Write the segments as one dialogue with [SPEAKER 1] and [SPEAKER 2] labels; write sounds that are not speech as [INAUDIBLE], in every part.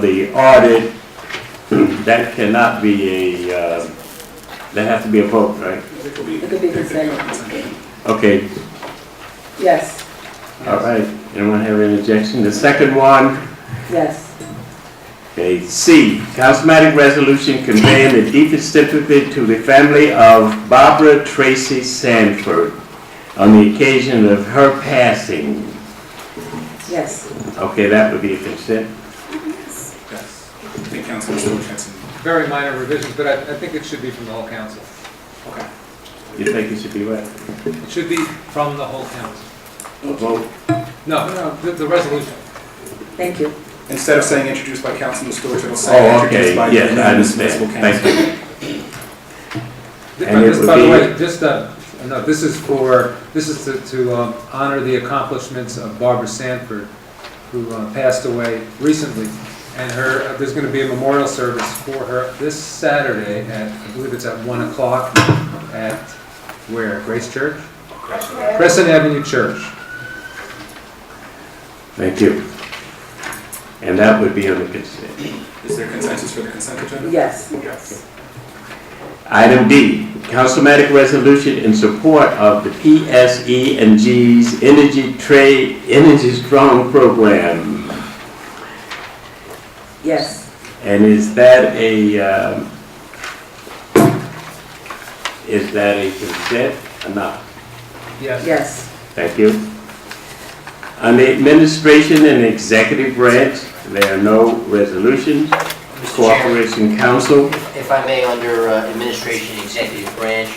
[SPEAKER 1] the audit, that cannot be a, uh, that has to be a vote, right?
[SPEAKER 2] It could be-
[SPEAKER 3] It could be consent.
[SPEAKER 1] Okay,
[SPEAKER 3] Yes,
[SPEAKER 1] all right. Anyone have an objection? The second one,
[SPEAKER 3] yes,
[SPEAKER 1] Okay, C, cosmetic resolution conveying the deepest sympathy to the family of Barbara Tracy Sanford on the occasion of her passing.
[SPEAKER 3] yes,
[SPEAKER 1] Okay, that would be a consent.
[SPEAKER 2] Yes. I think Councilman Stewart had some.
[SPEAKER 4] very minor revisions, but I, I think it should be from the whole council.
[SPEAKER 2] Okay.
[SPEAKER 1] You think it should be what?
[SPEAKER 4] It should be from the whole council.
[SPEAKER 1] A vote?
[SPEAKER 4] No, no, the, the resolution.
[SPEAKER 3] thank you.
[SPEAKER 2] Instead of saying introduced by Councilman Stewart, it'll say
[SPEAKER 1] Oh,
[SPEAKER 2] introduced
[SPEAKER 1] okay,
[SPEAKER 2] by
[SPEAKER 1] yes, I
[SPEAKER 2] unanimous municipal
[SPEAKER 1] understand.
[SPEAKER 2] council.
[SPEAKER 1] Thank you. And it
[SPEAKER 4] This, by the
[SPEAKER 1] would
[SPEAKER 4] way, just, uh, no, this is for, this is to, to um, honor the accomplishments of Barbara Sanford, who uh, passed away recently. And her, uh, there's gonna be a memorial service for her this Saturday at, I believe it's at one o'clock at, where, Grace Church? Crescent Avenue Church.
[SPEAKER 1] Thank you. And that would be on the consent.
[SPEAKER 2] Is there consensus for the consent agenda?
[SPEAKER 3] Yes,
[SPEAKER 2] Yes.
[SPEAKER 1] Item D, cosmetic resolution in support of the PSE and G's Energy Trade, Energy Strong Program.
[SPEAKER 3] yes,
[SPEAKER 1] And is that a, um, is that a consent or not?
[SPEAKER 4] Yes.
[SPEAKER 3] yes,
[SPEAKER 1] Thank you. On the administration and executive branch, there are no resolutions.
[SPEAKER 5] Mr. Chairman,
[SPEAKER 1] Cooperation Council,
[SPEAKER 5] if if I may, under uh, Administration Executive Branch,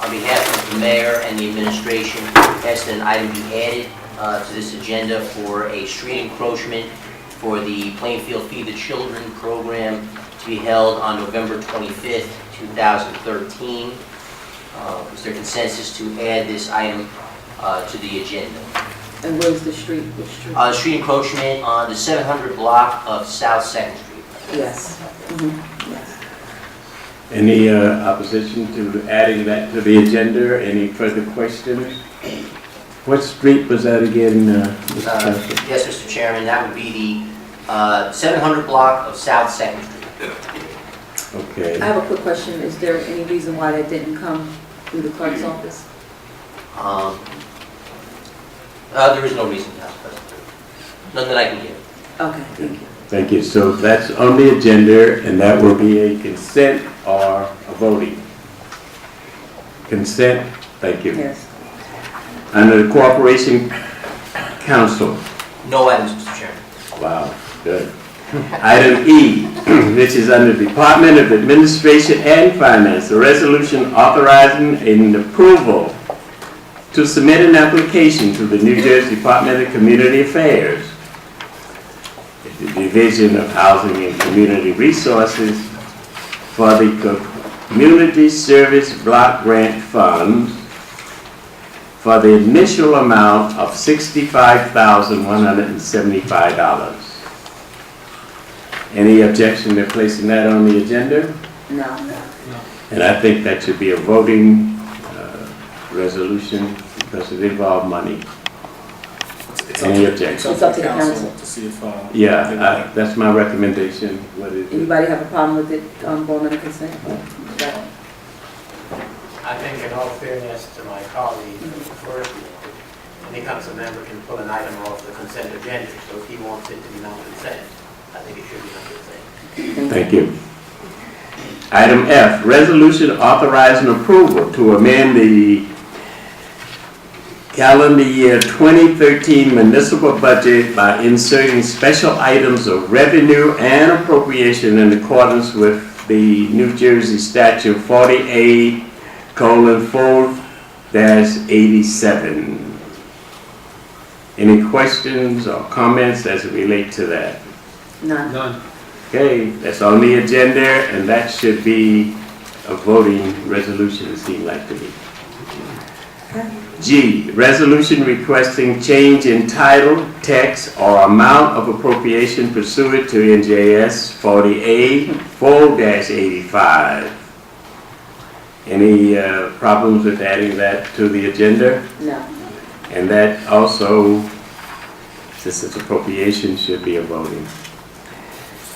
[SPEAKER 5] on behalf of the mayor and the administration, ask that an item be added uh, to this agenda for a street encroachment for the Plainfield Feed the Children program to be held on November 25th, 2013. Uh, Is there consensus to add this item uh, to the agenda?
[SPEAKER 3] and where's the street, which street?
[SPEAKER 5] Uh, Street encroachment on the 700 block of South Second Street.
[SPEAKER 3] Yes, mhm, yes,
[SPEAKER 1] any uh, opposition to adding that to the agenda? Any further questions? What street was that again, uh, Mr.
[SPEAKER 5] Uh,
[SPEAKER 1] Council?
[SPEAKER 5] Yes, Mr. Chairman, that would be the uh, 700 block of South Second Street.
[SPEAKER 3] I
[SPEAKER 1] Okay,
[SPEAKER 3] have a quick question, is there any reason why that didn't come through the clerk's office?
[SPEAKER 5] Um, uh, There is no reason, Council President. None that I can give.
[SPEAKER 3] Okay, thank you.
[SPEAKER 1] thank you. So that's on the agenda, and that will be a consent or a voting? Consent, thank you.
[SPEAKER 3] Yes,
[SPEAKER 1] Under the Corporation Council,
[SPEAKER 5] No items, Mr. Chairman.
[SPEAKER 1] Wow, good. Item E, [CLEARS THROAT] which is under Department of Administration and Finance, a resolution authorizing an approval to submit an application to the New Jersey Department of Community Affairs, the Division of Housing and Community Resources, for the Community Service Block Grant Fund for the initial amount of $65,175. Any objection to placing that on the agenda?
[SPEAKER 3] no,
[SPEAKER 1] And I think that should be a voting uh, resolution because it involves money.
[SPEAKER 2] It's- It's up
[SPEAKER 1] Any
[SPEAKER 2] to,
[SPEAKER 1] objection?
[SPEAKER 2] it's up to the council to see if, uh.
[SPEAKER 1] Yeah,
[SPEAKER 2] they
[SPEAKER 1] I-
[SPEAKER 2] want-
[SPEAKER 1] that's my recommendation. What is it?
[SPEAKER 3] anybody have a problem with it, um, going under consent? Okay.
[SPEAKER 6] I think in all fairness to my colleague, first, any council member can pull an item off the consent agenda, so if he wants it to be non-consent, I think it should be non-consent.
[SPEAKER 1] Thank you. Item F, resolution authorizing approval to amend the calendar year 2013 municipal budget by inserting special items of revenue and appropriation in accordance with the New Jersey statute 48 colon 4 dash 87. Any questions or comments as it relate to that?
[SPEAKER 3] None,
[SPEAKER 4] None.
[SPEAKER 1] Okay, that's on the agenda, and that should be a voting resolution, it seemed like to me. G, resolution requesting change in title, text, or amount of appropriation pursuant to NJS 48 4-85. Any uh, problems with adding that to the agenda?
[SPEAKER 3] no,
[SPEAKER 1] And that also, since it's appropriation, should be a voting.